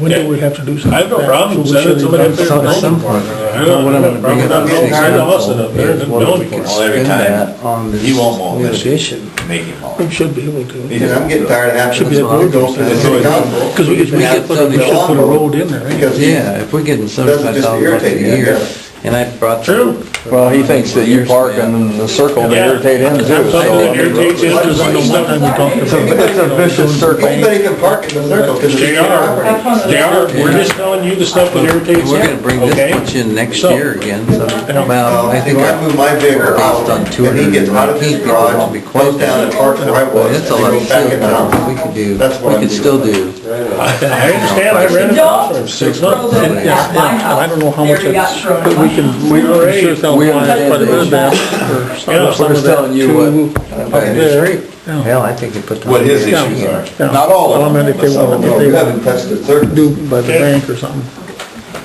When do we have to do something? I have no problem, send it to the building department. I Well, what I'm gonna don't, bring I'm up not, as an send us example an appearance is in what if we building could department. Well, every spend time, that on this he won't want new this. addition. make him all. We should be able to. Because I'm getting tired of having Should be to a road. go through the city council. Because we could, we could put a, we should put a road in there, right? Because he- Yeah, if we're getting Doesn't seventy-five just thousand bucks a irritate you, I year, guess. and I brought. True. Well, he thinks that you park in the circle to Yeah. irritate him too. Something that so- irritates him, because I know one time we talked about. It's a vicious circle. Anybody can park in the circle because it's They your are, property. they are, we're just telling you the stuff that irritates We're gonna bring him, this okay? bunch in next So- year again, so Well, about, I think. if I move my vehicle out, on two and hundred he gets out of his feet, people won't garage, be close goes to down and parks where I But was, and it's a then lot goes back in town. We could do, That's what we I'm could still doing. do, I I understand, I rented a house for six Don't months. And- throw and- that and I don't know how much it's, But we can, we can sure sell We fines, understand but it is that. that, or some Yeah, of We're just that telling you what, to- up Up there. the street. Hell, I think you put. the What his hundred Yeah. issues are. Yeah. Not all of Well, I mean, them, if they So, want, no, if you they want haven't touched the circle. to do by the bank or something.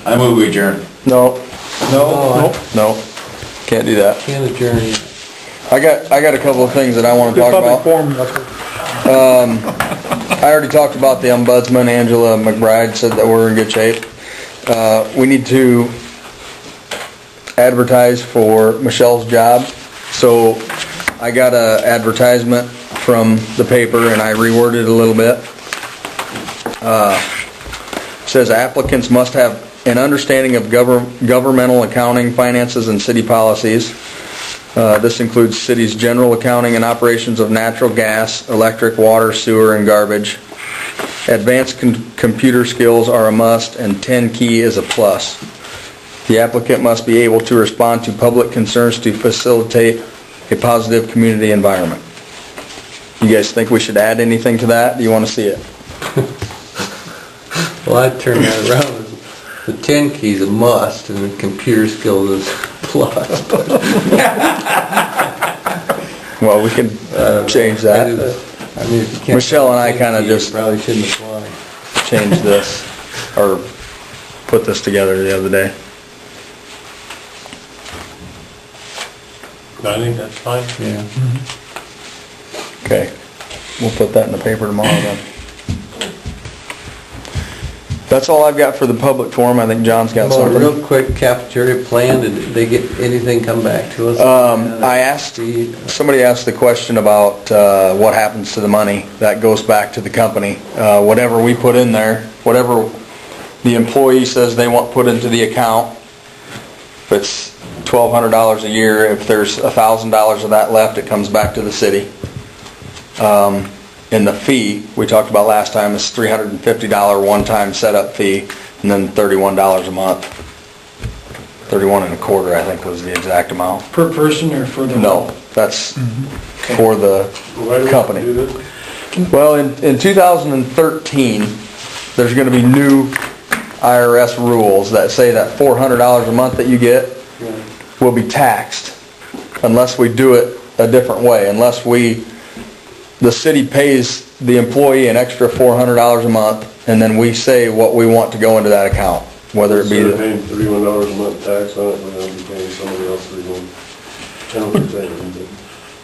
I move we adjourn. no, no, no, can't do that. Can adjourn it. I got, I got a couple of things that I wanna It's talk public about. forum, that's what. I already talked about the ombudsman, Angela McBride said that we're in good shape. Uh, we need to advertise for Michelle's job. So I got a advertisement from the paper and I reworded it a little bit. Uh, Says applicants must have an understanding of govern- governmental accounting, finances, and city policies. Uh, This includes city's general accounting and operations of natural gas, electric, water, sewer, and garbage. Advanced con- computer skills are a must, and 10 key is a plus. The applicant must be able to respond to public concerns to facilitate a positive community environment. You guys think we should add anything to that? Do you want to see it? Well, I'd turn that around. The ten key's a must and the computer skills is plus. But Well, we can uh, change I that, just- I mean, if you can't- Michelle and I kinda You just- Probably shouldn't apply. change this, or put this together the other day. I think that's fine. Yeah. Okay, we'll put that in the paper tomorrow then. That's all I've got for the public forum, I think John's got Well, something. real quick cafeteria plan, did they get anything come back to us? Um, I asked, The- somebody asked the question about, uh, what happens to the money that goes back to the company. Uh, whatever we put in there, whatever the employee says they want put into the account, if it's twelve hundred dollars a year, if there's a thousand dollars of that left, it comes back to the city. Um, And the fee, we talked about last time, is three hundred and fifty dollar one-time setup fee, and then thirty-one dollars a month. Thirty-one and a quarter, I think, was the exact amount. Per person or for the? Mm-hmm. No, that's for the Why do we company. do this? Well, in, in 2013, there's gonna be new IRS rules that say that $400 a month that you get will be taxed unless we do it a different way, unless we, the city pays the employee an extra $400 a month, and then we say what we want to go into that account, whether it be, Instead of the- paying thirty-one dollars a month tax on it, we're gonna be paying somebody else thirty-one, ten percent.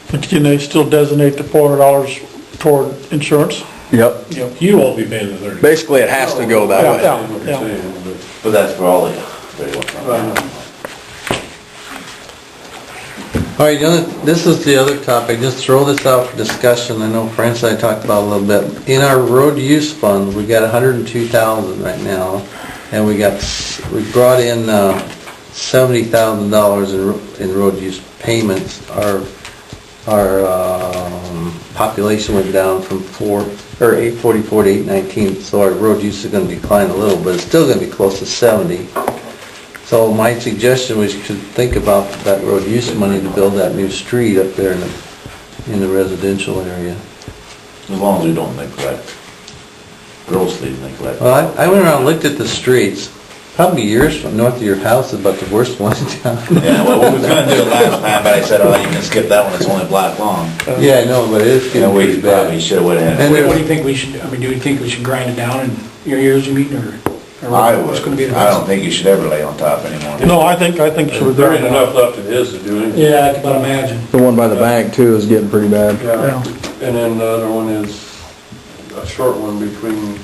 But can they still designate the four hundred dollars toward insurance? yep. You won't be paying the thirty. Basically, it has to go that Yeah, way. yeah. That's what you're saying, but- But that's for all the, they want from us. All right, the other- this is the other topic, just throw this out for discussion, I know Francis and I talked about it a little bit. In our road use fund, we got hundred and two thousand right now, and we got, s- we brought in, uh, seventy thousand dollars in, ro- in road use payments. Our, our, um, population went down from four, or eight forty-four to eight nineteen, so our road use is gonna decline a little, but it's still gonna be close to seventy. So my suggestion was to think about that road use money to build that new street up there in the, in the residential area. As long as we don't neglect, grossly neglect. Well, I, I went around, and looked at the streets, probably yours from north of your house is about the worst one in town. Yeah, well, we was gonna do it last time, but I said, oh, you can skip that one, it's only a block long. Yeah, I know, but it is You know, getting we pretty probably bad. should've went And ahead. there- What do you think we should, I mean, do you think we should grind it down in your years, you mean, or? or I What's would, gonna be the I don't best? think you should ever lay on top anymore. No, I think, I think so. There ain't enough left in his to do anything. Yeah, I can but imagine. The one by the bank too is getting pretty bad. Yeah, and then the other one is a short one between